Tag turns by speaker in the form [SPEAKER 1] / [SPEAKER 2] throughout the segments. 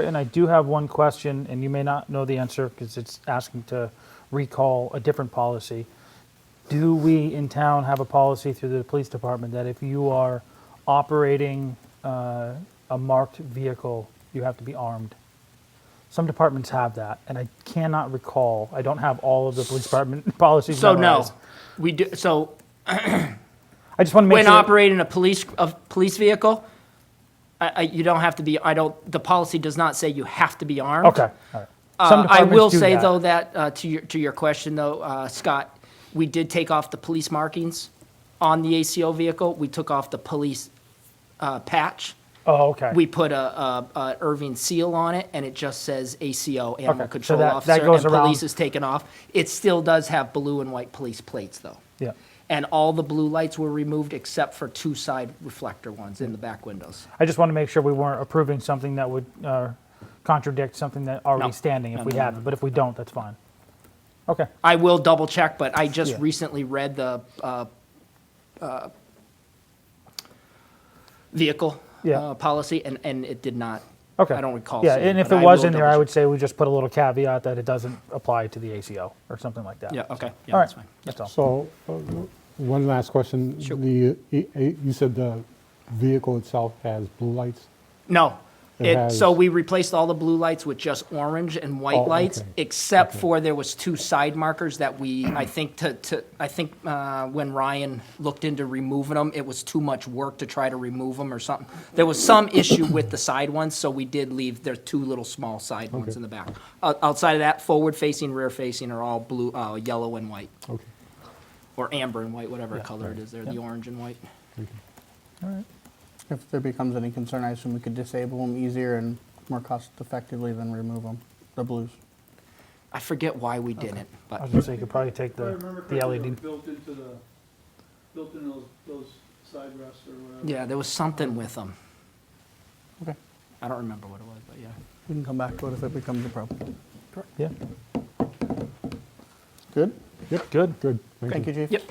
[SPEAKER 1] And I do have one question, and you may not know the answer because it's asking to recall a different policy. Do we in town have a policy through the police department that if you are operating uh, a marked vehicle, you have to be armed? Some departments have that, and I cannot recall. I don't have all of the police department policies
[SPEAKER 2] So no,
[SPEAKER 1] memorized.
[SPEAKER 2] we do, so
[SPEAKER 1] I just want to make
[SPEAKER 2] when
[SPEAKER 1] sure.
[SPEAKER 2] operating a police, a police vehicle, I, I, you don't have to be, I don't, the policy does not say you have to be armed.
[SPEAKER 1] Okay, all right. Some
[SPEAKER 2] Uh, I
[SPEAKER 1] departments
[SPEAKER 2] will
[SPEAKER 1] do
[SPEAKER 2] say
[SPEAKER 1] that.
[SPEAKER 2] though that, uh, to your, to your question though, uh, Scott, we did take off the police markings on the ACO vehicle. We took off the police, uh, patch.
[SPEAKER 1] Oh, okay.
[SPEAKER 2] We put a, a, a Irving seal on it and it just says ACO,
[SPEAKER 1] Okay,
[SPEAKER 2] Animal
[SPEAKER 1] so
[SPEAKER 2] Control
[SPEAKER 1] that- that
[SPEAKER 2] Officer.
[SPEAKER 1] goes
[SPEAKER 2] And
[SPEAKER 1] around-
[SPEAKER 2] police is taken off. It still does have blue and white police plates though.
[SPEAKER 1] Yeah.
[SPEAKER 2] And all the blue lights were removed except for two side reflector ones in the back windows.
[SPEAKER 1] I just want to make sure we weren't approving something that would uh, contradict something that already
[SPEAKER 2] No.
[SPEAKER 1] standing if
[SPEAKER 2] No,
[SPEAKER 1] we
[SPEAKER 2] no, no,
[SPEAKER 1] have it, but if we don't, that's fine. Okay,
[SPEAKER 2] I will double check, but I just
[SPEAKER 1] Yeah.
[SPEAKER 2] recently read the uh, uh, vehicle
[SPEAKER 1] Yeah.
[SPEAKER 2] uh, policy, and, and it did not.
[SPEAKER 1] okay.
[SPEAKER 2] I don't recall.
[SPEAKER 1] Yeah,
[SPEAKER 2] seeing
[SPEAKER 1] and if
[SPEAKER 2] but
[SPEAKER 1] it
[SPEAKER 2] I
[SPEAKER 1] was
[SPEAKER 2] will
[SPEAKER 1] in there, I
[SPEAKER 2] double
[SPEAKER 1] would say we just put a little caveat that it doesn't apply to the ACO or something like that.
[SPEAKER 2] check. Yeah, okay, yeah,
[SPEAKER 1] All right,
[SPEAKER 2] that's fine.
[SPEAKER 1] that's all.
[SPEAKER 3] So, uh, one last question.
[SPEAKER 2] Sure.
[SPEAKER 3] The, eh, eh, you said the vehicle itself has blue lights?
[SPEAKER 2] No,
[SPEAKER 3] It
[SPEAKER 2] it, so
[SPEAKER 3] has-
[SPEAKER 2] we replaced all the blue lights with just orange and
[SPEAKER 3] Oh,
[SPEAKER 2] white
[SPEAKER 3] okay.
[SPEAKER 2] lights, except for there was two side markers that we, I think to, to, I think, uh, when Ryan looked into removing them, it was too much work to try to remove them or something. There was some issue with the side ones, so we did leave, there two little small side ones
[SPEAKER 3] Okay.
[SPEAKER 2] in the back. O- Outside of that, forward facing, rear facing are all blue, uh, yellow and white,
[SPEAKER 3] Okay.
[SPEAKER 2] or amber and white, whatever color it is, they're the orange and white.
[SPEAKER 4] If there becomes any concern, I assume we could disable them easier and more cost effectively than remove them, the blues.
[SPEAKER 2] I forget why we didn't,
[SPEAKER 1] I
[SPEAKER 2] but.
[SPEAKER 1] was gonna say, you could probably take
[SPEAKER 5] If I
[SPEAKER 1] the, E
[SPEAKER 5] remember
[SPEAKER 1] the
[SPEAKER 5] correctly, they were
[SPEAKER 1] LED.
[SPEAKER 5] built into the, built into those, those side rests or whatever.
[SPEAKER 2] Yeah, there was something with them.
[SPEAKER 4] Okay.
[SPEAKER 2] I don't remember what it was, but yeah.
[SPEAKER 4] We can come back to it if it becomes a problem.
[SPEAKER 1] Yeah,
[SPEAKER 4] Good?
[SPEAKER 1] good.
[SPEAKER 3] Good, thank you.
[SPEAKER 4] Thank you, Chief.
[SPEAKER 2] Yep.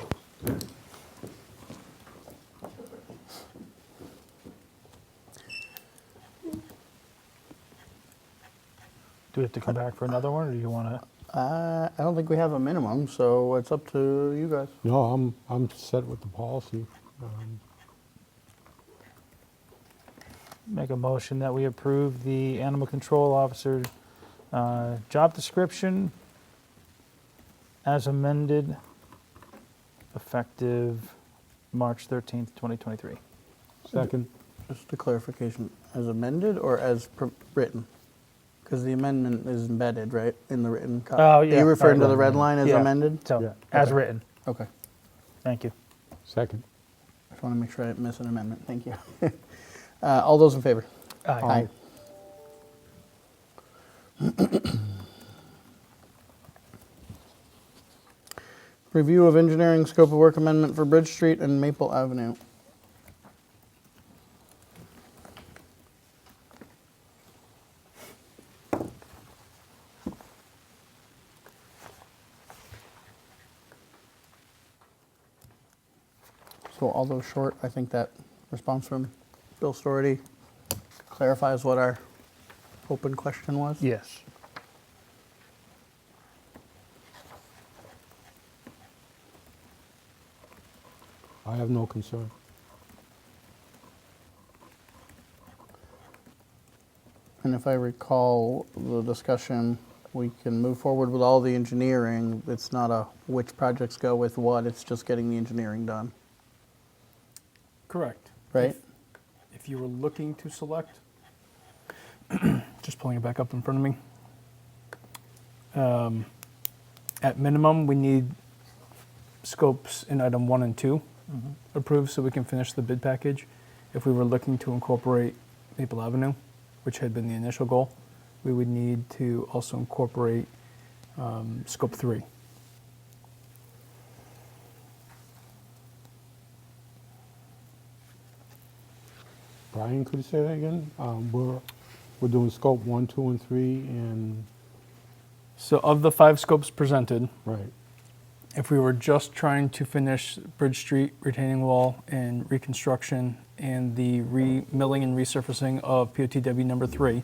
[SPEAKER 1] Do we have to come back for another one, or do you wanna?
[SPEAKER 4] Uh, I don't think we have a minimum, so it's up to you guys.
[SPEAKER 3] No, I'm, I'm set with the policy. Um,
[SPEAKER 1] Make a motion that we approve the animal control officer uh, job description as amended, effective March 13th, 2023.
[SPEAKER 3] Second,
[SPEAKER 4] Just a clarification, as amended or as pr- written? Because the amendment is embedded, right, in the written copy?
[SPEAKER 1] Oh, yeah.
[SPEAKER 4] Are Uh, you referring to
[SPEAKER 1] Sorry.
[SPEAKER 4] the red line as
[SPEAKER 1] Yeah.
[SPEAKER 4] amended?
[SPEAKER 1] So,
[SPEAKER 3] Yeah.
[SPEAKER 1] as
[SPEAKER 4] Okay.
[SPEAKER 1] written,
[SPEAKER 4] Okay.
[SPEAKER 1] thank you.
[SPEAKER 3] second.
[SPEAKER 4] Just want to make sure I didn't miss an amendment. Thank you. Uh, All those in favor?
[SPEAKER 1] Aye.
[SPEAKER 4] Review of engineering scope of work amendment for Bridge Street and Maple Avenue. So although short, I think that response from Bill Story clarifies what our open question was.
[SPEAKER 1] Yes.
[SPEAKER 3] I have no concern.
[SPEAKER 4] And if I recall the discussion, we can move forward with all the engineering. It's not a which projects go with what, it's just getting the engineering done,
[SPEAKER 6] Correct.
[SPEAKER 4] right?
[SPEAKER 6] If you were looking to select, just pulling it back up in front of me. Um, At minimum, we need scopes in item one and two approved so we can finish the bid package. If we were looking to incorporate Maple Avenue, which had been the initial goal, we would need to also incorporate um, scope three.
[SPEAKER 3] Brian, could you say that again? Um, We're, we're doing scope one, two, and three, and,
[SPEAKER 6] So of the five scopes presented,
[SPEAKER 3] right,
[SPEAKER 6] if we were just trying to finish Bridge Street retaining wall and reconstruction and the re-milling and resurfacing of POTW number three,